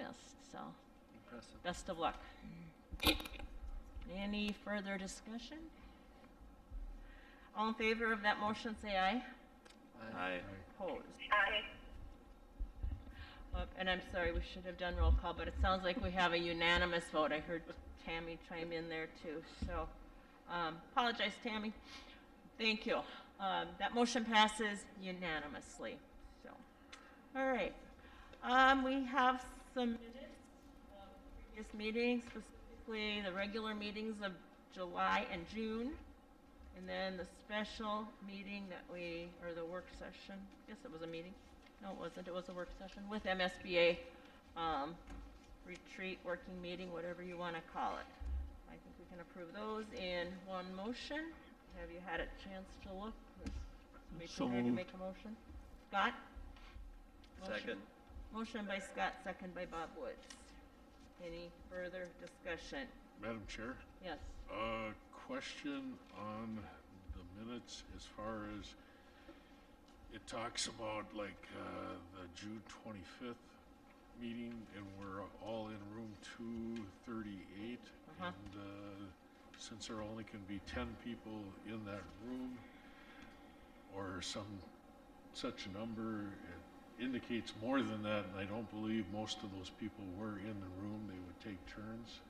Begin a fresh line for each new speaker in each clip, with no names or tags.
missed, so
Impressive.
best of luck. Any further discussion? All in favor of that motion, say aye.
Aye.
Opposed? Aye. Uh, And I'm sorry, we should have done roll call, but it sounds like we have a unanimous vote. I heard Tammy chime in there too, so um, apologize, Tammy. Thank you. Um, That motion passes unanimously, so. All right. Um, We have some minutes of previous meetings, specifically the regular meetings of July and June. And then the special meeting that we, or the work session, I guess it was a meeting. No, it wasn't, it was a work session with MSBA, um, retreat, working meeting, whatever you want to call it. I think we can approve those in one motion. Have you had a chance to look? Is somebody
So
prepared to
moved.
make a motion? Scott? Motion.
Second.
Motion by Scott, second by Bob Woods. Any further discussion?
Madam Chair,
Yes.
a question on the minutes as far as, it talks about like, uh, the June twenty-fifth meeting and we're all in room two thirty-eight.
Uh-huh.
And, uh, since there only can be ten people in that room or some such a number, it indicates more than that. And I don't believe most of those people were in the room. They would take turns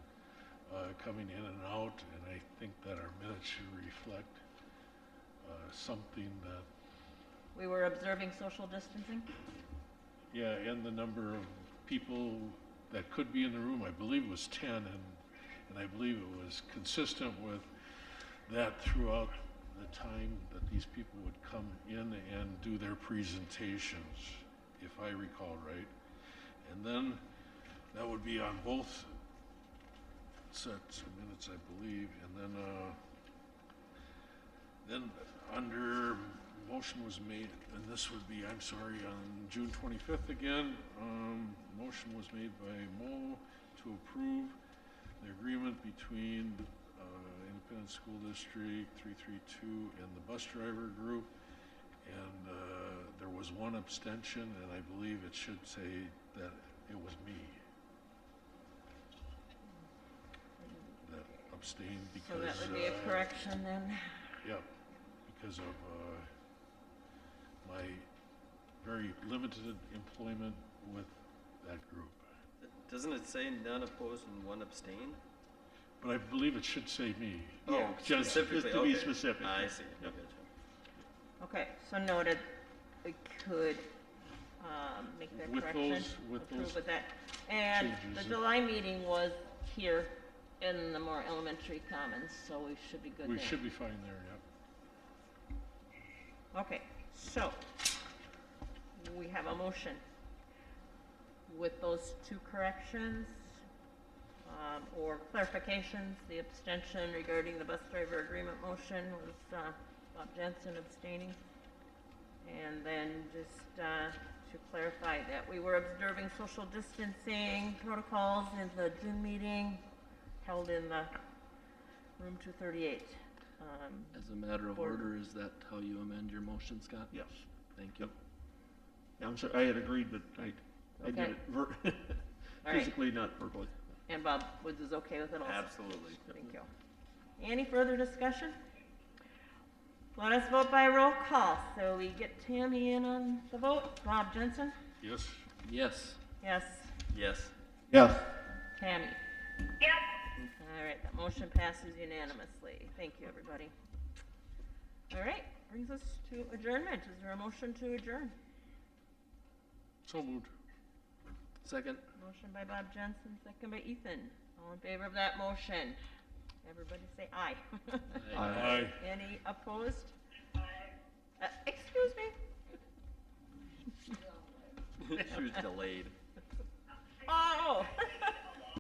uh, coming in and out, and I think that our minutes should reflect uh, something that,
We were observing social distancing?
yeah, and the number of people that could be in the room, I believe was 10, and, and I believe it was consistent with that throughout the time that these people would come in and do their presentations, if I recall right. And then that would be on both sets of minutes, I believe, and then, uh, Then, under, motion was made, and this would be, I'm sorry, on June twenty-fifth again, um, motion was made by Mo to approve the agreement between, uh, Independent School District three-three-two and the bus driver group. And, uh, there was one abstention, and I believe it should say that it was me that abstained
So
because,
that would be a
uh,
correction then?
Yep, because of uh, my very limited employment with that group.
Doesn't it say none opposed and one abstained?
But I believe it should say me.
Oh,
Just- just
specifically,
to be
okay.
specific.
I see. I
Yep.
gotcha.
Okay, so noted, we could um, make that
With
correction.
those- with
approve
those
With that, and the
changes.
July meeting was here in the more elementary commons, so we should be good
We
there.
should be fine there, yep.
Okay, so, we have a motion with those two corrections, um, or clarifications, the abstention regarding the bus driver agreement motion was, uh, Bob Jensen abstaining. And then just, uh, to clarify that we were observing social distancing protocols in the June meeting held in the room two thirty-eight. Um,
As a matter of
Board.
order, is that how you amend your motion, Scott?
Yes.
Thank you.
Yeah, I'm sorry, I had agreed, but I, I did
Okay.
it ver-
right.
physically, not verbally.
and Bob Woods is okay with it also?
Absolutely.
Thank you. Any further discussion? Let us vote by roll call, so we get Tammy in on the vote. Bob Jensen?
Yes,
Yes,
Yes.
Yes.
Yes.
Tammy? Yes. All right, that motion passes unanimously. Thank you, everybody. All right, brings us to adjournment. Is there a motion to adjourn?
so moved.
second?
Motion by Bob Jensen, second by Ethan. All in favor of that motion? Everybody say aye.
Aye.
Any opposed? Uh, Excuse me?
she was delayed.
아, 어.